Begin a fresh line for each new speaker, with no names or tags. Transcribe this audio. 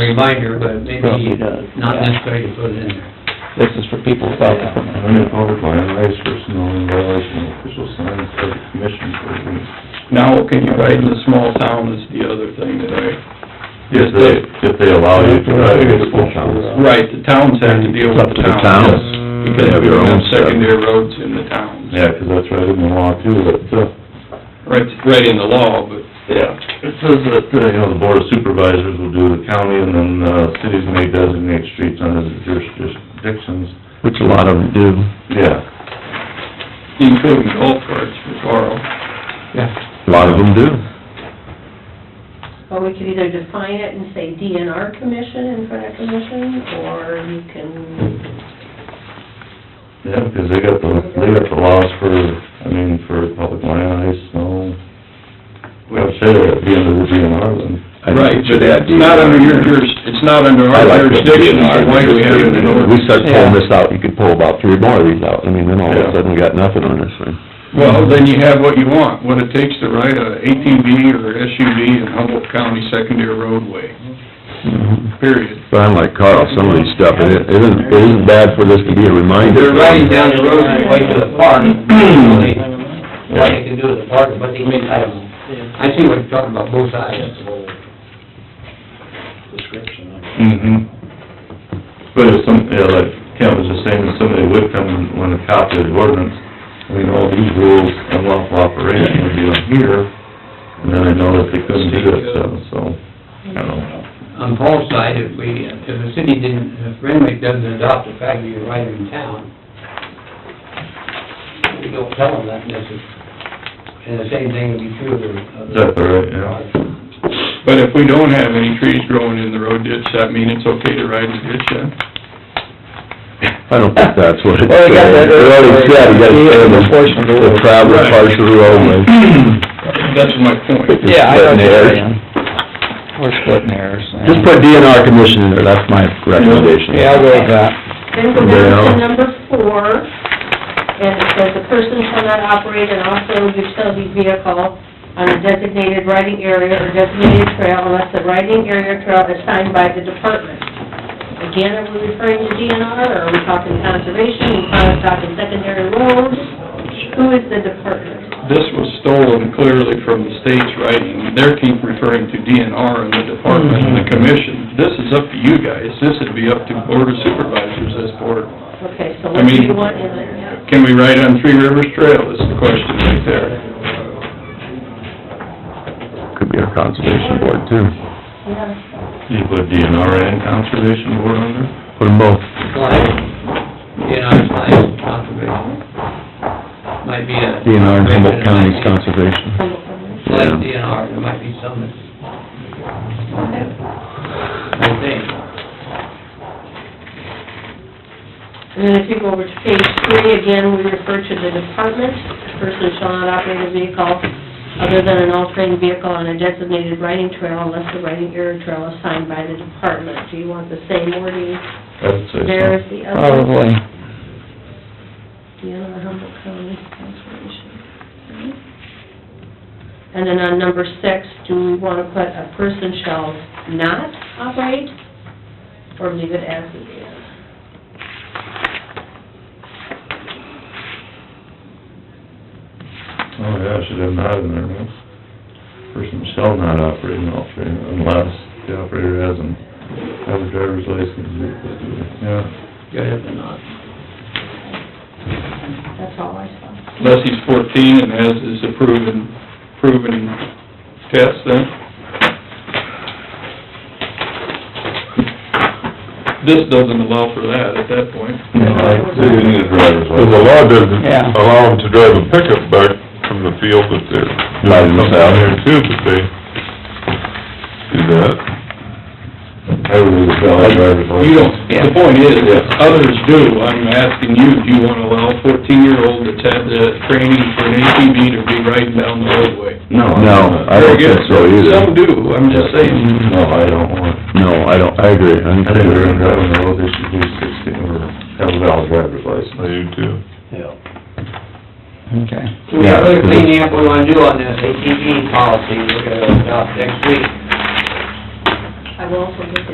reminder, but maybe
does.
not necessary to put it in there.
This is for people without the permit.
I'm in order by an ice person, only violation of official signs of the commission for a week.
Now, can you ride in the small town is the other thing that I...
If they, if they allow you to drive in the full town.
Right, the towns have to deal
It's up
with
to
the
the
town.
towns. You
Because
can have
we
your
don't
own
have
stuff.
secondary roads in the towns.
Yeah, 'cause that's right in the law too, but, uh,
Right, right in the law, but...
Yeah, it says that, uh, you know, the board of supervisors will do the county, and then, uh, cities may designate streets under the jurisdictions.
Which a lot of them do.
Yeah,
including golf carts for Carl.
A lot of them do.
Well, we could either define it and say DNR commission in front of commission, or you can,
yeah, because they got the, they got the laws for, I mean, for public land, ice, snow. We have to say that at the end of the DNR, then.
Right, but that's not under your juris, it's not under our jurisdiction, so why do we have it in
We
order?
start pulling this out, you could pull about three more of these out, I mean, then all of
Yeah.
a sudden, we got nothing on this thing.
Well, then you have what you want, what it takes to ride a ATV or SUV in Humboldt County secondary roadway,
Mm-hmm.
period.
But I'm like Carl, some of these stuff, and it it isn't, it isn't bad for this to be a reminder.
They're riding down the road and way to the park, they, what they can do at the park, but they may, I don't, I see what you're talking about, both sides.
Mm-hmm. But if some, yeah, like Kent was just saying, if somebody would come and want to copy the ordinance, I mean, all these rules, unlawful operation would be on here, and then I know that they couldn't do that stuff, so, I don't know.
On Paul's side, if we, if the city didn't, if Renwick doesn't adopt the fact that you're right in town, we don't tell them that necessarily. And the same thing would be true of the...
That's all right, yeah.
But if we don't have any trees growing in the road ditch, that mean it's okay to ride in the ditch, then?
I don't think that's what it said.
Well, they got that-
It already said, you gotta stay in the,
Portion of the road.
the travel partially only.
That's my point.
Just splitting hairs.
We're splitting hairs.
Just put DNR commission in there, that's my recommendation.
Yeah, I'll go with that.
then go down
Yeah.
to number four, and it says the person shall not operate an off-road utility vehicle on a designated riding area or designated trail unless the riding area or trail is signed by the department. Again, are we referring to DNR, or are we talking conservation, are we talking secondary roads? Who is the department?
This was stolen clearly from the state's writing. They're keep referring to DNR and the department and the commission. This is up to you guys. This would be up to board of supervisors, this board.
Okay, so
I
what do
mean-
you want in there?
Can we ride on Three Rivers Trail is the question right there.
Could be our conservation board too.
Yeah.
You put DNR and conservation board under?
Put them both.
In our slides, conservation. Might be a...
DNR and Humboldt County's conservation.
Like DNR, there might be some that's... I think.
And then if you go over to page three, again, we refer to the department, person shall not operate a vehicle other than an all-terrain vehicle on a designated riding trail unless the riding area or trail is signed by the department. Do you want the same wording
I would say
there as
so.
the other?
Probably.
Yeah, Humboldt County Conservation. And then on number six, do we want to put a person shall not operate or leave it as it is?
Oh, yeah, I should have not in there, no. Person shall not operate an off-road unless the operator has an, has a driver's license. Yeah.
Good if they're not.
That's all I saw.
Unless he's fourteen and has his proven, proven test then. This doesn't allow for that at that point.
No, I think you need a driver's
Well, the law doesn't
Yeah.
allow them to drive a pickup back from the field that they're
By
doing something
themselves.
there too, but they do that.
I would need a valid driver's license.
You don't, the point is, if others do, I'm asking you, do you wanna allow a fourteen-year-old that's had the training for an ATV to be riding down the roadway?
No.
No, I
Very
don't
good.
think so
Some
either.
do, I'm just saying.
No, I don't want,
No, I don't, I agree. I think
I think they're driving the road, they should do sixteen, or have a valid driver's
They
license.
do too.
Okay.
We got other cleaning up we wanna do on this E ATV policy, we're gonna adopt next week.
I will also look at